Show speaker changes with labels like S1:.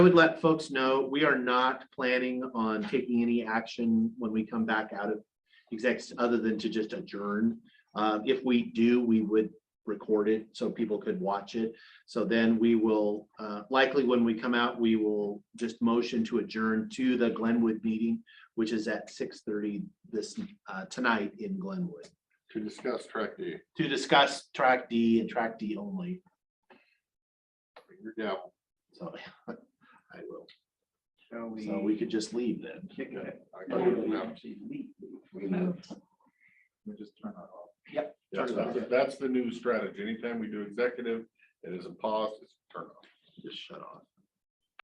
S1: I would let folks know, we are not planning on taking any action when we come back out of execs, other than to just adjourn. Uh, If we do, we would record it so people could watch it. So then we will, uh, likely when we come out, we will just motion to adjourn to the Glenwood meeting, which is at six thirty this, uh, tonight in Glenwood,
S2: to discuss track D.
S1: to discuss track D and track D only.
S2: Bring your gavel.
S1: So I will.
S3: Shall we?
S1: So we could just leave then.
S3: kick it?
S2: I got it now.
S3: We moved. We just turn that off. Yep.
S1: Turn it off.
S2: That's that's the new strategy. Anytime we do executive, it is a pause, it's a turn off.
S1: Just shut off.